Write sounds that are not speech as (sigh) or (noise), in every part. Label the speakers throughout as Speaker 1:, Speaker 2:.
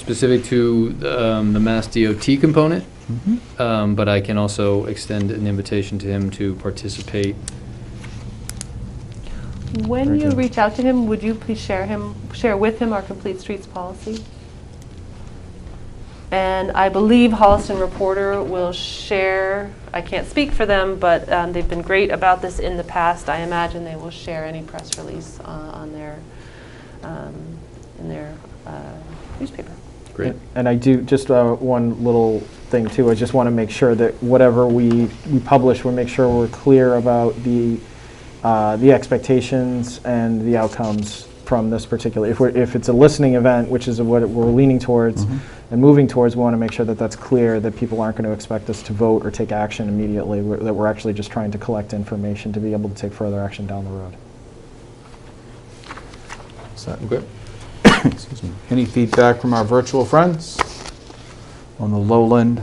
Speaker 1: specific to um, the Mass DOT component,
Speaker 2: Mm-hmm.
Speaker 1: um, but I can also extend an invitation to him to participate.
Speaker 3: When
Speaker 1: Very
Speaker 3: you
Speaker 1: good.
Speaker 3: reach out to him, would you please share him, share with him our complete streets policy? And I believe Holliston Reporter will share, I can't speak for them, but um, they've been great about this in the past. I imagine they will share any press release uh, on their, um, in their uh, newspaper.
Speaker 1: Great.
Speaker 4: And I do, just uh, one little thing too, I just want to make sure that whatever we, we publish, we make sure we're clear about the, uh, the expectations and the outcomes from this particular, if we're, if it's a listening event, which is what we're leaning towards and moving towards, we want to make sure that that's clear, that people aren't going to expect us to vote or take action immediately, we're- that we're actually just trying to collect information to be able to take further action down the road.
Speaker 2: So,
Speaker 1: Okay.
Speaker 2: (coughs) excuse me. Any feedback from our virtual friends on the Lowland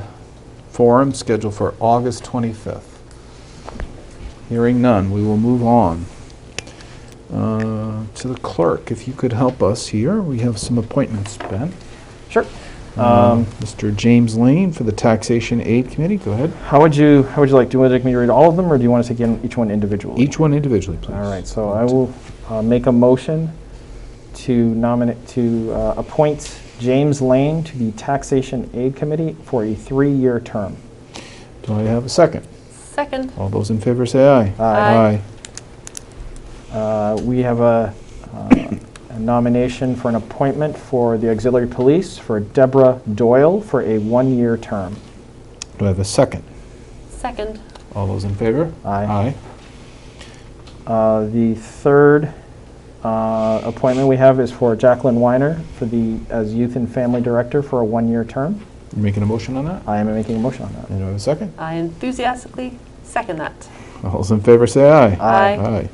Speaker 2: Forum scheduled for August 25th? Hearing none, we will move on. Uh, To the clerk, if you could help us here, we have some appointments, Ben.
Speaker 4: Sure.
Speaker 2: Um,
Speaker 4: Um,
Speaker 2: Mr. James Lane for the Taxation Aid Committee, go ahead.
Speaker 4: How would you, how would you like, do you want me to read all of them or do you want to take in each one individually?
Speaker 2: Each one individually, please.
Speaker 4: All right, so I will uh, make a motion to nominate, to uh, appoint James Lane to the Taxation Aid Committee for a three-year term.
Speaker 2: Do I have a second?
Speaker 3: Second.
Speaker 2: All those in favor say aye.
Speaker 3: Aye.
Speaker 4: Uh, We have a uh, a nomination for an appointment for the auxiliary police for Deborah Doyle for a one-year term.
Speaker 2: Do I have a second?
Speaker 3: Second.
Speaker 2: All those in favor?
Speaker 4: Aye.
Speaker 2: Aye.
Speaker 4: Uh, The third uh, appointment we have is for Jacqueline Weiner for the, as Youth and Family Director for a one-year term.
Speaker 2: You making a motion on that?
Speaker 4: I am making a motion on that.
Speaker 2: And do I have a second?
Speaker 3: I enthusiastically second that.
Speaker 2: All those in favor say aye.
Speaker 3: Aye.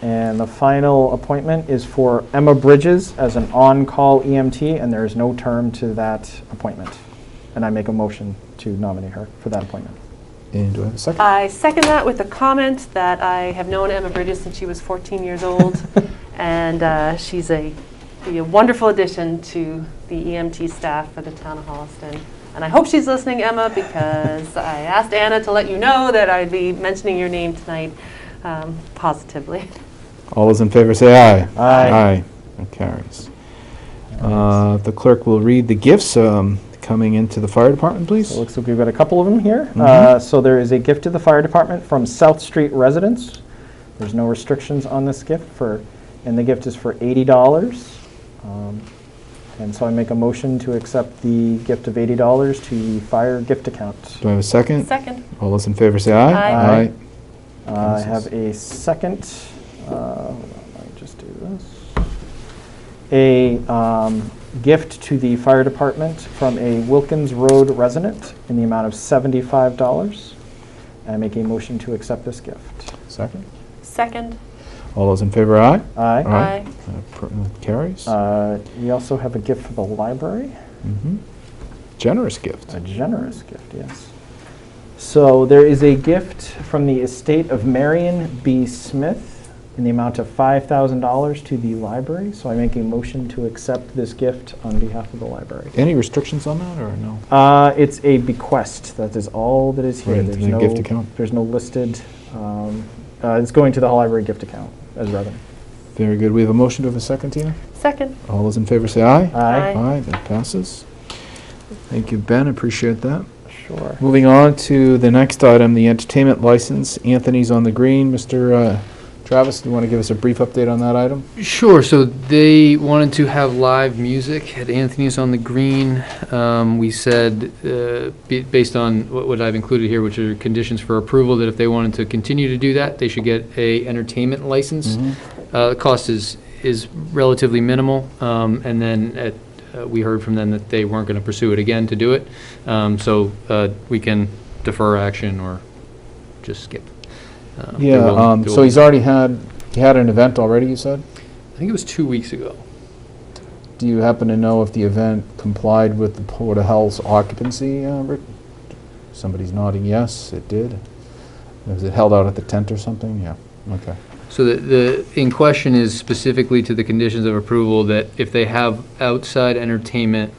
Speaker 4: And the final appointment is for Emma Bridges as an on-call EMT, and there is no term to that appointment. And I make a motion to nominate her for that appointment.
Speaker 2: And do I have a second?
Speaker 3: I second that with the comment that I have known Emma Bridges since she was 14 years old, and uh, she's a, be a wonderful addition to the EMT staff for the town of Holliston. And I hope she's listening, Emma, because I asked Anna to let you know that I'd be mentioning your name tonight um, positively.
Speaker 2: All those in favor say aye.
Speaker 4: Aye.
Speaker 2: Aye. That carries. Uh, The clerk will read the gifts um, coming into the fire department, please.
Speaker 4: So it looks like we've got a couple of them here.
Speaker 2: Mm-hmm.
Speaker 4: Uh, So there is a gift to the fire department from South Street residents. There's no restrictions on this gift for, and the gift is for $80. Um, And so I make a motion to accept the gift of $80 to the fire gift account.
Speaker 2: Do I have a second?
Speaker 3: Second.
Speaker 2: All those in favor say aye.
Speaker 3: Aye.
Speaker 4: Aye. Uh, I have a second, uh, let me just do this. A um, gift to the fire department from a Wilkins Road resident in the amount of $75. I make a motion to accept this gift.
Speaker 2: Second.
Speaker 3: Second.
Speaker 2: All those in favor, aye.
Speaker 4: Aye.
Speaker 2: Aye.
Speaker 3: Aye.
Speaker 2: That pr- that Carries.
Speaker 4: Uh, We also have a gift for the library.
Speaker 2: Mhm. Generous gift.
Speaker 4: A generous gift, yes. So there is a gift from the estate of Marion B. Smith in the amount of $5,000 to the library. So I make a motion to accept this gift on behalf of the library.
Speaker 2: Any restrictions on that, or no?
Speaker 4: Uh, it's a bequest. That is all that is here.
Speaker 2: Right,
Speaker 4: there's
Speaker 2: there's no
Speaker 4: no
Speaker 2: gift account.
Speaker 4: There's no listed. Um, uh, it's going to the library gift account as revenue.
Speaker 2: Very good. We have a motion. Do I have a second, Tina?
Speaker 3: Second.
Speaker 2: All those in favor say aye.
Speaker 3: Aye.
Speaker 2: Aye, that passes. Thank you, Ben, appreciate that.
Speaker 4: Sure.
Speaker 2: Moving on to the next item, the entertainment license, Anthony's on the Green. Mr. uh, Travis, do you want to give us a brief update on that item?
Speaker 1: Sure, so they wanted to have live music at Anthony's on the Green. Um, We said, uh, be- based on what what I've included here, which are conditions for approval, that if they wanted to continue to do that, they should get a entertainment license. Uh, The cost is, is relatively minimal, um, and then at, uh, we heard from them that they weren't going to pursue it again to do it. Um, So uh, we can defer action or just skip. Um, they're
Speaker 2: Yeah,
Speaker 1: willing-
Speaker 2: um,
Speaker 1: they're
Speaker 2: so
Speaker 1: willing.
Speaker 2: he's already had, he had an event already, you said?
Speaker 1: I think it was two weeks ago.
Speaker 2: Do you happen to know if the event complied with the Port of Health's occupancy? uh, re- Somebody's nodding yes, it did. Was it held out at the tent or something? Yeah, okay.
Speaker 1: So the, the, in question is specifically to the conditions of approval that if they have outside entertainment